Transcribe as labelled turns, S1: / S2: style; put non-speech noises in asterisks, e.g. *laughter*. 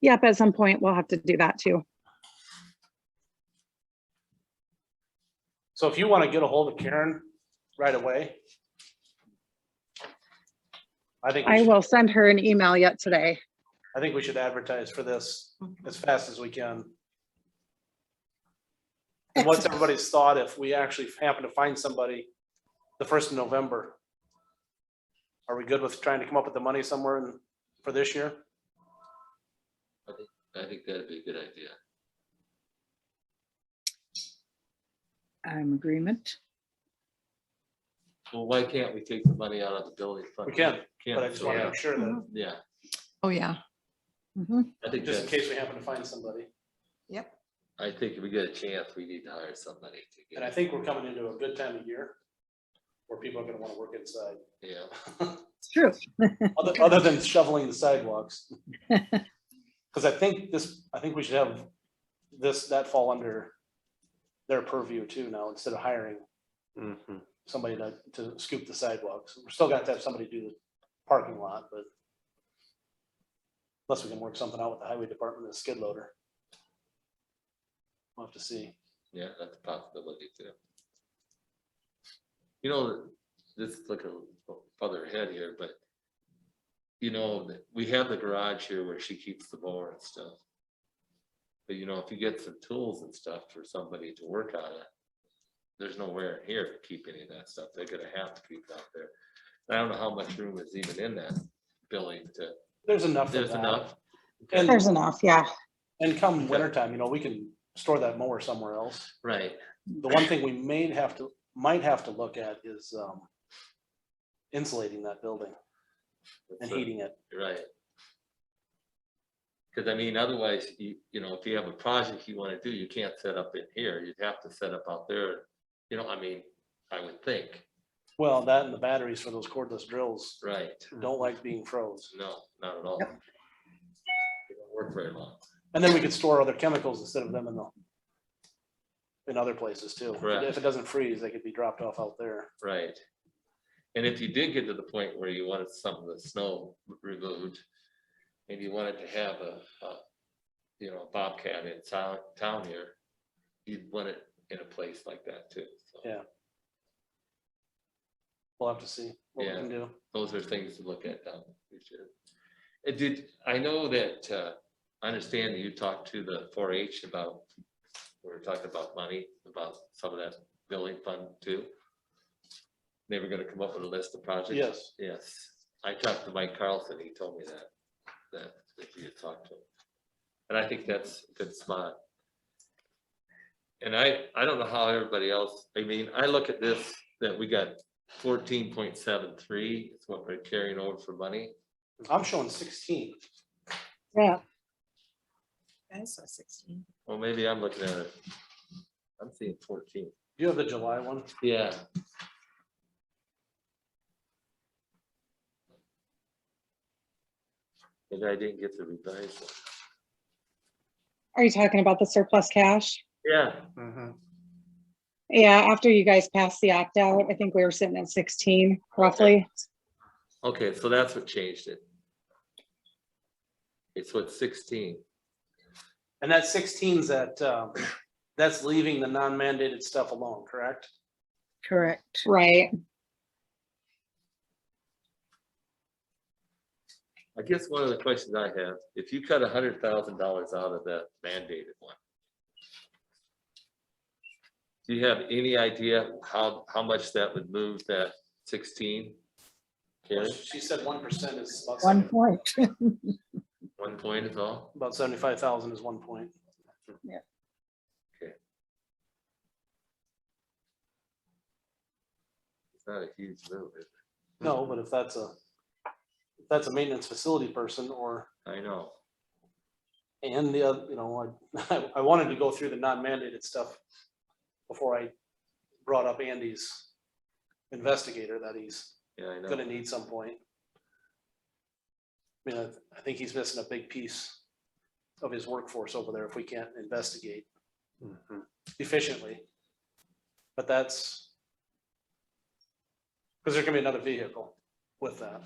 S1: Yep, at some point, we'll have to do that too.
S2: So if you want to get a hold of Karen right away. I think, we
S1: I
S2: should-
S1: will send her an email yet today.
S2: I think we should advertise for this as fast as we can. And what's everybody's thought if we actually happen to find somebody the first of November? Are we good with trying to come up with the money somewhere in- for this year?
S3: I think that'd be a good idea.
S4: I'm agreement.
S3: Well, why can't we take the money out of the building fund?
S2: We can, But I
S3: Can't,
S2: just want to
S3: yeah,
S2: make sure that,
S3: yeah,
S4: Oh, yeah.
S1: Mm-hmm.
S3: I think
S2: just in
S3: that's,
S2: case we happen to find somebody.
S3: I think if we get a chance, we need to hire somebody to
S2: And I
S3: get,
S2: think we're coming into a good time of year where people are going to want to work inside.
S3: yeah.
S4: It's true.
S2: Other, other than shoveling the sidewalks. Cause I think this, I think we should have this, that fall under their purview too now, instead of hiring
S3: Mm-hmm.
S2: somebody to, to scoop the sidewalks. We're still gonna have to have somebody do the parking lot, but unless we can work something out with the highway department, and the skid loader. We'll have to see.
S3: Yeah, that's a possibility too. You know, this is like a further ahead here, but you know, th- we have the garage here where she keeps the mower and stuff. But you know, if you get some tools and stuff for somebody to work on it, there's nowhere in here to keep any of that stuff. They're gonna have to keep it out there. And I don't know how much room is even in that building to,
S2: There's enough. of
S3: there's
S2: that.
S3: enough.
S2: And-
S1: There's enough, yeah.
S2: And come wintertime, you know, we can store that mower somewhere else.
S3: Right,
S2: The one thing we may have to, might have to look at is um, insulating that building and
S3: So-
S2: heating it.
S3: Right. Cause I mean, otherwise, you, you know, if you have a project you wanna do, you can't set up in here, you'd have to set up out there, you know, I mean, I would think,
S2: Well, that and the batteries for those cordless drills
S3: right,
S2: don't like being froze.
S3: no, not at all. They don't Work very long,
S2: And then we could store other chemicals instead of them in the in other places too.
S3: Correct.
S2: If it doesn't freeze, they could be dropped off out there.
S3: right? And if you did get to the point where you wanted some of the snow removed, and you wanted to have a, a, you know, Bobcat in town, town here, you'd want it in a place like that too, so.
S2: Yeah. We'll have to see what we
S3: Yeah.
S2: can do.
S3: those are things to look at down the future. It did, I know that, uh, I understand that you talked to the four H about, we were talking about money, about some of that building fund too. They were gonna come up with a list of projects.
S2: Yes.
S3: Yes, I talked to Mike Carlson, he told me that, that, that you had talked to him. And I think that's a good spot. And I, I don't know how everybody else, I mean, I look at this, that we got fourteen point seven three, it's what we're carrying over for money.
S2: I'm showing sixteen.
S1: Yeah.
S4: I saw sixteen.
S3: Well, maybe I'm looking at it. I'm seeing fourteen.
S2: Do you have the July one?
S3: Yeah. Maybe I didn't get the revised one.
S1: Are you talking about the surplus cash?
S3: Yeah,
S1: Yeah, after you guys passed the opt out, I think we were sitting at sixteen roughly.
S3: okay, so that's what changed it. It's what sixteen,
S2: And that sixteen's that, um, that's leaving the non-mandated stuff alone, correct?
S4: Correct.
S1: Right.
S3: I guess one of the questions I have, if you cut a hundred thousand dollars out of that mandated one. Do you have any idea how, how much that would move that sixteen? Karen,
S2: She said one percent is about
S4: One point.
S3: one point is all?
S2: About seventy-five thousand is one point.
S3: It's not a huge move, is
S2: No, but if that's a, if that's a maintenance facility person or,
S3: it? I know,
S2: and the, oth- you know, I, *laughs* I wanted to go through the non-mandated stuff before I brought up Andy's investigator that he's
S3: yeah, I know.
S2: gonna need some point. I mean, I- I think he's missing a big piece of his workforce over there if we can't investigate efficiently. But that's because there can be another vehicle with that.